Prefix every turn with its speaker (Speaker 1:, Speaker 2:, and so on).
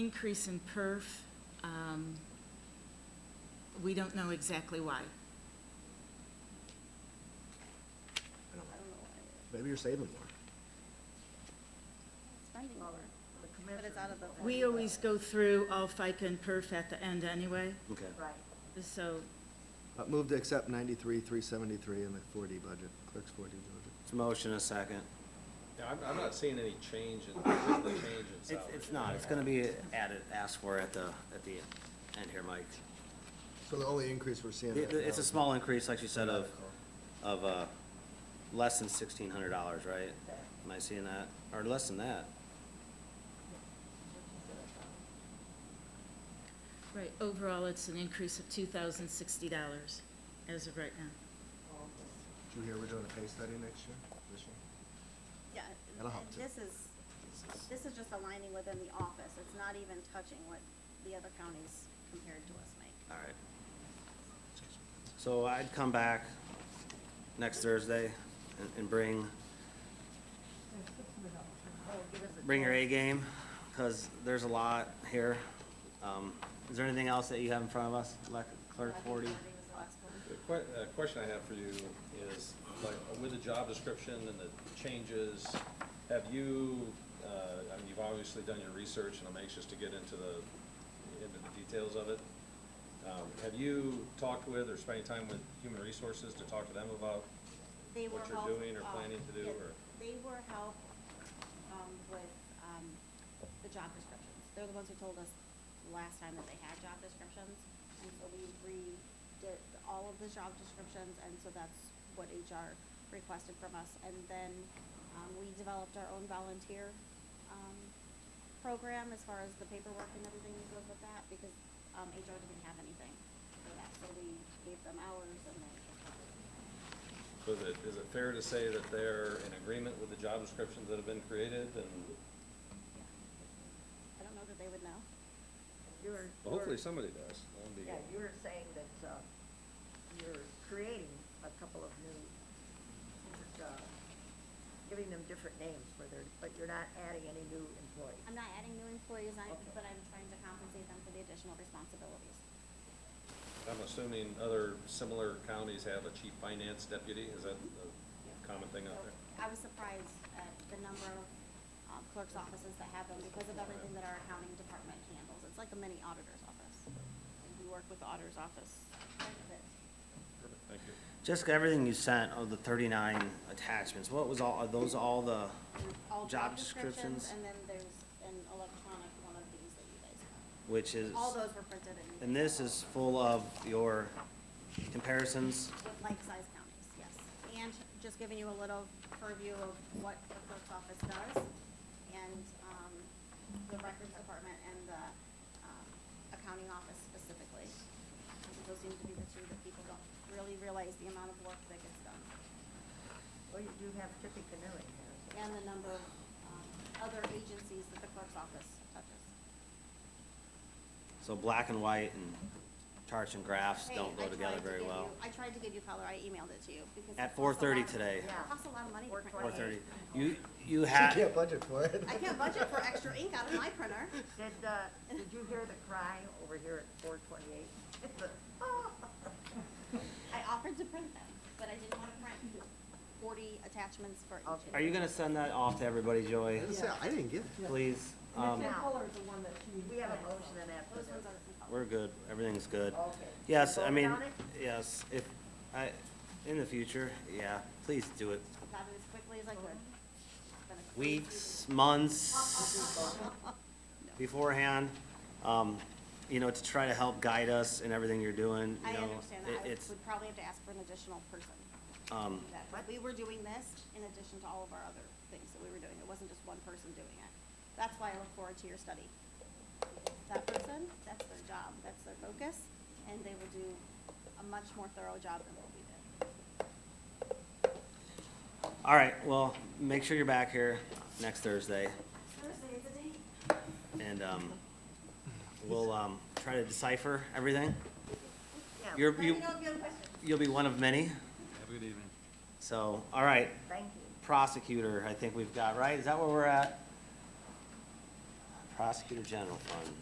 Speaker 1: increase in perf. um, We don't know exactly why.
Speaker 2: I don't know.
Speaker 3: I don't know why it
Speaker 2: Maybe you're saving more.
Speaker 3: is. Spending more, but it's out of the.
Speaker 1: We always go through all FICA and perf at the end anyway,
Speaker 2: Okay.
Speaker 4: Right.
Speaker 1: so,
Speaker 2: Uh, Move to accept ninety-three, three seventy-three in the four D budget, clerk's four D budget.
Speaker 5: It's a motion, a second.
Speaker 6: Yeah, I'm, I'm not seeing any change in, the change in
Speaker 5: It's,
Speaker 6: salary.
Speaker 5: it's not, it's gonna be added, asked for at the, at the end here, Mike.
Speaker 2: So the only increase we're seeing.
Speaker 5: It-
Speaker 2: right now
Speaker 5: It's a
Speaker 2: is-
Speaker 5: small increase, like you said, of, of, uh, less than sixteen hundred dollars, right? Am I seeing that? Or less than that?
Speaker 1: right, overall, it's an increase of two thousand sixty dollars as of right now.
Speaker 2: Did you hear we're doing a pay study next year, this year?
Speaker 3: Yeah,
Speaker 2: That'll help
Speaker 3: and
Speaker 2: too.
Speaker 3: this is, this is just aligning within the office, it's not even touching what the other counties compared to us make.
Speaker 5: All right. So I'd come back next Thursday and, and bring,
Speaker 3: Oh,
Speaker 5: bring your A game, cause there's a lot here. Um, is there anything else that you have in front of us, Lec- Clerk Forty?
Speaker 6: The que- uh, question I have for you is, like, with the job description and the changes, have you, uh, I mean, you've obviously done your research, and I'm anxious to get into the, into the details of it. Um, have you talked with or spent any time with human resources to talk to them about
Speaker 3: They
Speaker 6: what
Speaker 3: were
Speaker 6: you're
Speaker 3: help-
Speaker 6: doing or
Speaker 3: um,
Speaker 6: planning to do,
Speaker 3: yeah,
Speaker 6: or?
Speaker 3: They were helped, um, with, um, the job descriptions. They're the ones who told us last time that they had job descriptions, and so we redid all of the job descriptions, and so that's what HR requested from us. And then, um, we developed our own volunteer, um, program as far as the paperwork and everything that goes with that, because, um, HR didn't have anything for that, so we gave them hours and then.
Speaker 6: So is it, is it fair to say that they're in agreement with the job descriptions that have been created, and
Speaker 3: I don't know that they would know.
Speaker 4: You were.
Speaker 6: well, hopefully somebody does? That'd be-
Speaker 4: Yeah, you were saying that, uh, you're creating a couple of new, uh, giving them different names for their, but you're not adding any new employees.
Speaker 3: I'm not adding new employees, I,
Speaker 4: Okay.
Speaker 3: but I'm trying to compensate them for the additional responsibilities.
Speaker 6: I'm assuming other similar counties have a chief finance deputy, is that a common thing out
Speaker 3: So
Speaker 6: there?
Speaker 3: I was surprised at the number of um, clerk's offices that have them because of everything that our accounting department handles. It's like a mini auditor's office. And We work with the auditor's office quite a bit.
Speaker 6: Perfect, Thank you.
Speaker 5: Jessica, everything you sent of the thirty-nine attachments, what was all, are those all the
Speaker 3: All
Speaker 5: job descriptions?
Speaker 3: And then there's an electronic one of these that you guys have.
Speaker 5: Which is,
Speaker 3: All those were printed in.
Speaker 5: and this is full of your comparisons?
Speaker 3: with like-sized counties, yes. And just giving you a little purview of what the clerk's office does and, um, the records department and the, um, accounting office specifically. Those seem to be the two that people don't really realize the amount of work that gets done
Speaker 4: Well, you do have Tippecanoe here. so-
Speaker 3: and the number of, um, other agencies that the clerk's office touches.
Speaker 5: So black and white and charts and graphs
Speaker 3: Hey,
Speaker 5: don't
Speaker 3: I
Speaker 5: go
Speaker 3: tried
Speaker 5: together
Speaker 3: to
Speaker 5: very
Speaker 3: give
Speaker 5: well.
Speaker 3: you- I tried to give you color, I emailed it to you because.
Speaker 5: At
Speaker 3: it costs a lot
Speaker 5: 4:30
Speaker 3: of-
Speaker 5: today.
Speaker 3: It costs a lot of money to print.
Speaker 5: Four
Speaker 4: 4:30.
Speaker 5: thirty. You, you
Speaker 2: She
Speaker 5: had,
Speaker 2: can't budget for it.
Speaker 3: I can't budget for extra ink out of my printer.
Speaker 4: Did, uh, did you hear the cry over here at four twenty-eight?
Speaker 3: I offered to print them, but I didn't want to print forty attachments for each.
Speaker 4: Okay.
Speaker 5: are you gonna send that off to everybody, Joey?
Speaker 2: I was gonna say, I didn't get it.
Speaker 5: Please? Um,
Speaker 4: Now,
Speaker 7: color is the one that she.
Speaker 4: we have a motion and after
Speaker 3: Those
Speaker 4: this.
Speaker 3: ones are.
Speaker 5: We're good, everything's good.
Speaker 4: Okay.
Speaker 5: Yes,
Speaker 4: You
Speaker 5: I
Speaker 4: voted
Speaker 5: mean,
Speaker 4: on it?
Speaker 5: yes, if, I, in the future, yeah, please do it.
Speaker 3: I got it as quickly as I could. It's been a crazy
Speaker 5: Weeks, months beforehand, um, you know, to try to help guide us in everything you're doing,
Speaker 3: week.
Speaker 5: you
Speaker 3: I
Speaker 5: know.
Speaker 3: understand
Speaker 5: it-
Speaker 3: that. I
Speaker 5: It's,
Speaker 3: would probably have to ask for an additional person. to
Speaker 5: um,
Speaker 3: do that. But we were doing this in addition to all of our other things that we were doing. It wasn't just one person doing it. That's why I look forward to your study. That person, that's their job, that's their focus, and they will do a much more thorough job than what we did.
Speaker 5: all right, well, make sure you're back here next Thursday.
Speaker 3: Thursday is the day.
Speaker 5: and um, we'll um, try to decipher everything.
Speaker 4: Yeah,
Speaker 5: You're,
Speaker 3: Let me
Speaker 5: you,
Speaker 3: know if you have questions.
Speaker 5: you'll be one of many. Have a good evening. So, all right,
Speaker 4: Thank you.
Speaker 5: prosecutor, I think we've got, right? Is that where we're at? Prosecutor General Fund.